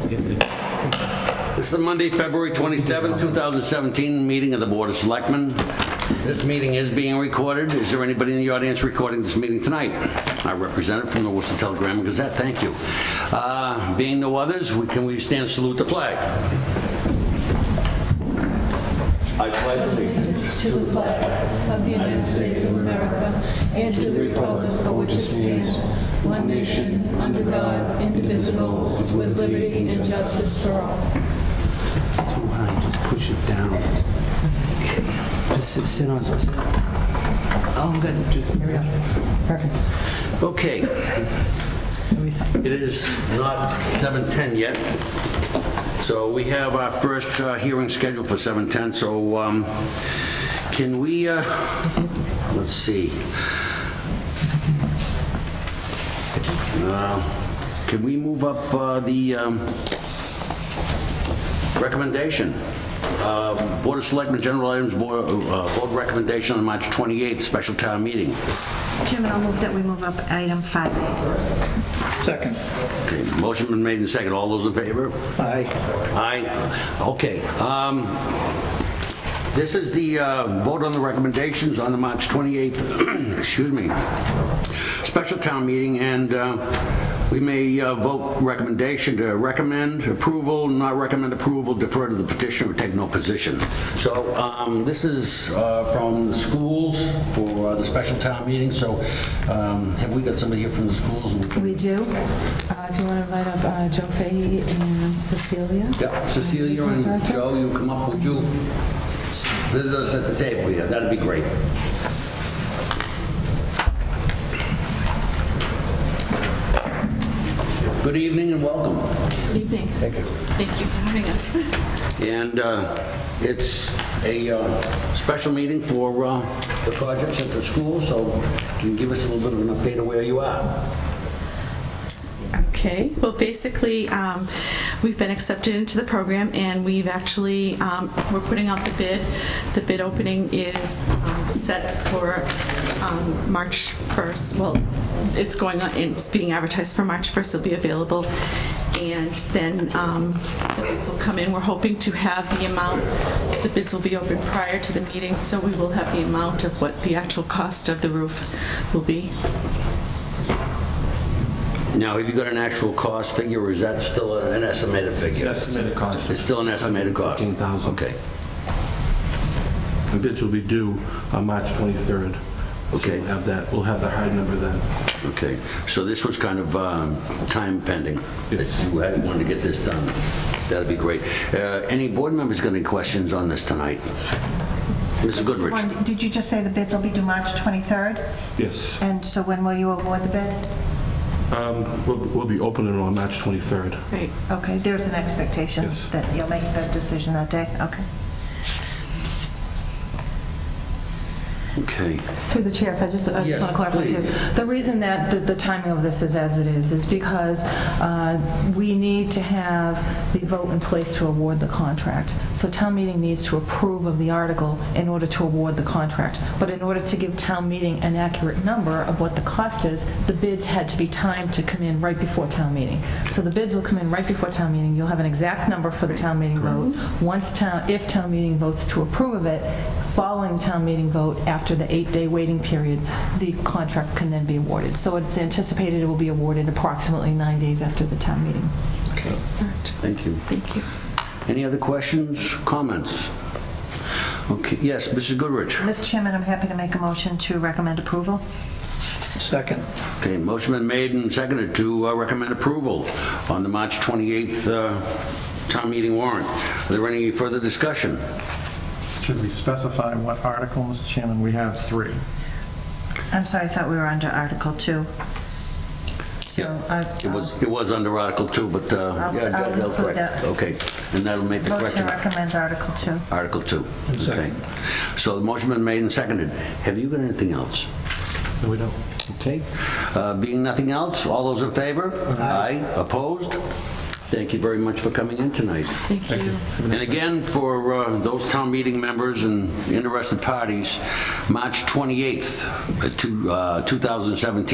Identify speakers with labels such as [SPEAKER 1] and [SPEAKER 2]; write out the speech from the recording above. [SPEAKER 1] This is the Monday, February 27, 2017, meeting of the Board of Selectmen. This meeting is being recorded. Is there anybody in the audience recording this meeting tonight? Our representative from the Worcester Telegram and Gazette, thank you. Uh, Being no others, we- can we stand and salute the flag? I pledge
[SPEAKER 2] allegiance to the flag of the United States of America and to the republic for which it stands, one nation, under God, indivisible, with liberty and justice for all.
[SPEAKER 3] too high, just push it down. Just sit- sit on this.
[SPEAKER 4] Oh, good. Here we go. Perfect.
[SPEAKER 1] Okay. It is not 7:10 yet, so we have our first uh, hearing scheduled for 7:10, so um, can we, uh, let's see. Uh, Can we move up uh, the um, recommendation? Uh, Board of Selectmen, General Items, Board uh, Board Recommendation on March 28th, Special Town Meeting.
[SPEAKER 5] Chairman, I'll move that we move up item 5A.
[SPEAKER 6] Second.
[SPEAKER 1] Okay, motion been made and second. All those in favor?
[SPEAKER 6] Aye.
[SPEAKER 1] Aye. Okay. um, This is the uh, vote on the recommendations on the March 28th, excuse me, special town meeting, and uh, we may uh, vote recommendation to recommend approval, not recommend approval, defer to the petitioner, take no position. So um, this is uh, from the schools for uh, the special town meeting, so um, have we got somebody here from the schools?
[SPEAKER 4] We do. Uh, If you want to invite up uh, Joe Fahey and Cecilia.
[SPEAKER 1] Yeah, Cecilia and Joe, you come up, would you visit us at the table here? That'd be great. Good evening and welcome.
[SPEAKER 2] Good evening. Thank you. Thank you for having us.
[SPEAKER 1] And uh, it's a uh, special meeting for uh, the projects at the school, so can you give us a little bit of an update of where you are?
[SPEAKER 7] Okay, well, basically, um, we've been accepted into the program, and we've actually, um, we're putting out the bid. The bid opening is um, set for um, March 1st. Well, it's going on, it's being advertised for March 1st, it'll be available. And then um, the bids will come in. We're hoping to have the amount, the bids will be open prior to the meeting, so we will have the amount of what the actual cost of the roof will be.
[SPEAKER 1] Now, have you got an actual cost figure, or is that still an estimated figure?
[SPEAKER 6] Estimated cost.
[SPEAKER 1] It's still an estimated cost?
[SPEAKER 3] 15,000.
[SPEAKER 1] Okay.
[SPEAKER 6] The bids will be due on March 23rd. So
[SPEAKER 1] Okay.
[SPEAKER 6] We'll have that, we'll have the hard number then.
[SPEAKER 1] Okay, so this was kind of um, time pending. that
[SPEAKER 6] Yes.
[SPEAKER 1] You had wanted to get this done. That'd be great. Uh, Any board members got any questions on this tonight? Mrs. Goodrich?
[SPEAKER 5] One, Did you just say the bids will be due March 23rd?
[SPEAKER 6] Yes.
[SPEAKER 5] And so when will you award the bid?
[SPEAKER 6] We'll we'll be opening on March 23rd.
[SPEAKER 7] Right.
[SPEAKER 5] Okay, there's an expectation
[SPEAKER 6] Yes.
[SPEAKER 5] that you'll make that decision that day? Okay.
[SPEAKER 1] Okay.
[SPEAKER 4] Through the chair, if I just, I
[SPEAKER 1] Yes,
[SPEAKER 4] just want to clarify too.
[SPEAKER 1] please.
[SPEAKER 4] The reason that the- the timing of this is as it is, is because uh, we need to have the vote in place to award the contract. So town meeting needs to approve of the article in order to award the contract. But in order to give town meeting an accurate number of what the cost is, the bids had to be timed to come in right before town meeting. So the bids will come in right before town meeting. You'll have an exact number for the town meeting vote. Once town, if town meeting votes to approve of it, following town meeting vote, after the eight-day waiting period, the contract can then be awarded. So it's anticipated it will be awarded approximately nine days after the town meeting.
[SPEAKER 1] Thank you.
[SPEAKER 7] Thank you.
[SPEAKER 1] Any other questions, comments? Okay, yes, Mrs. Goodrich?
[SPEAKER 5] Mr. Chairman, I'm happy to make a motion to recommend approval.
[SPEAKER 6] Second.
[SPEAKER 1] Okay, motion been made and seconded to uh, recommend approval on the March 28th uh, town meeting warrant. Are there any further discussion?
[SPEAKER 8] Should we specify what article, Mr. Chairman? We have three.
[SPEAKER 5] I'm sorry, I thought we were under Article 2. So uh, I-
[SPEAKER 1] It was, it was under Article 2, but... uh,
[SPEAKER 5] I'll s-
[SPEAKER 1] yeah,
[SPEAKER 5] I'll
[SPEAKER 1] that- that's
[SPEAKER 5] include
[SPEAKER 1] correct.
[SPEAKER 5] that.
[SPEAKER 1] Okay, and that'll make the
[SPEAKER 5] Vote to
[SPEAKER 1] correction.
[SPEAKER 5] recommend Article 2.
[SPEAKER 1] Article 2. Okay. So the motion been made and seconded. Have you got anything else?
[SPEAKER 6] No, we don't.
[SPEAKER 1] Okay. Uh, Being nothing else, all those in favor? Aye. Opposed? Thank you very much for coming in tonight.
[SPEAKER 7] Thank you.
[SPEAKER 1] And again, for uh, those town meeting members and interested parties, March 28th, uh, two- uh, 2017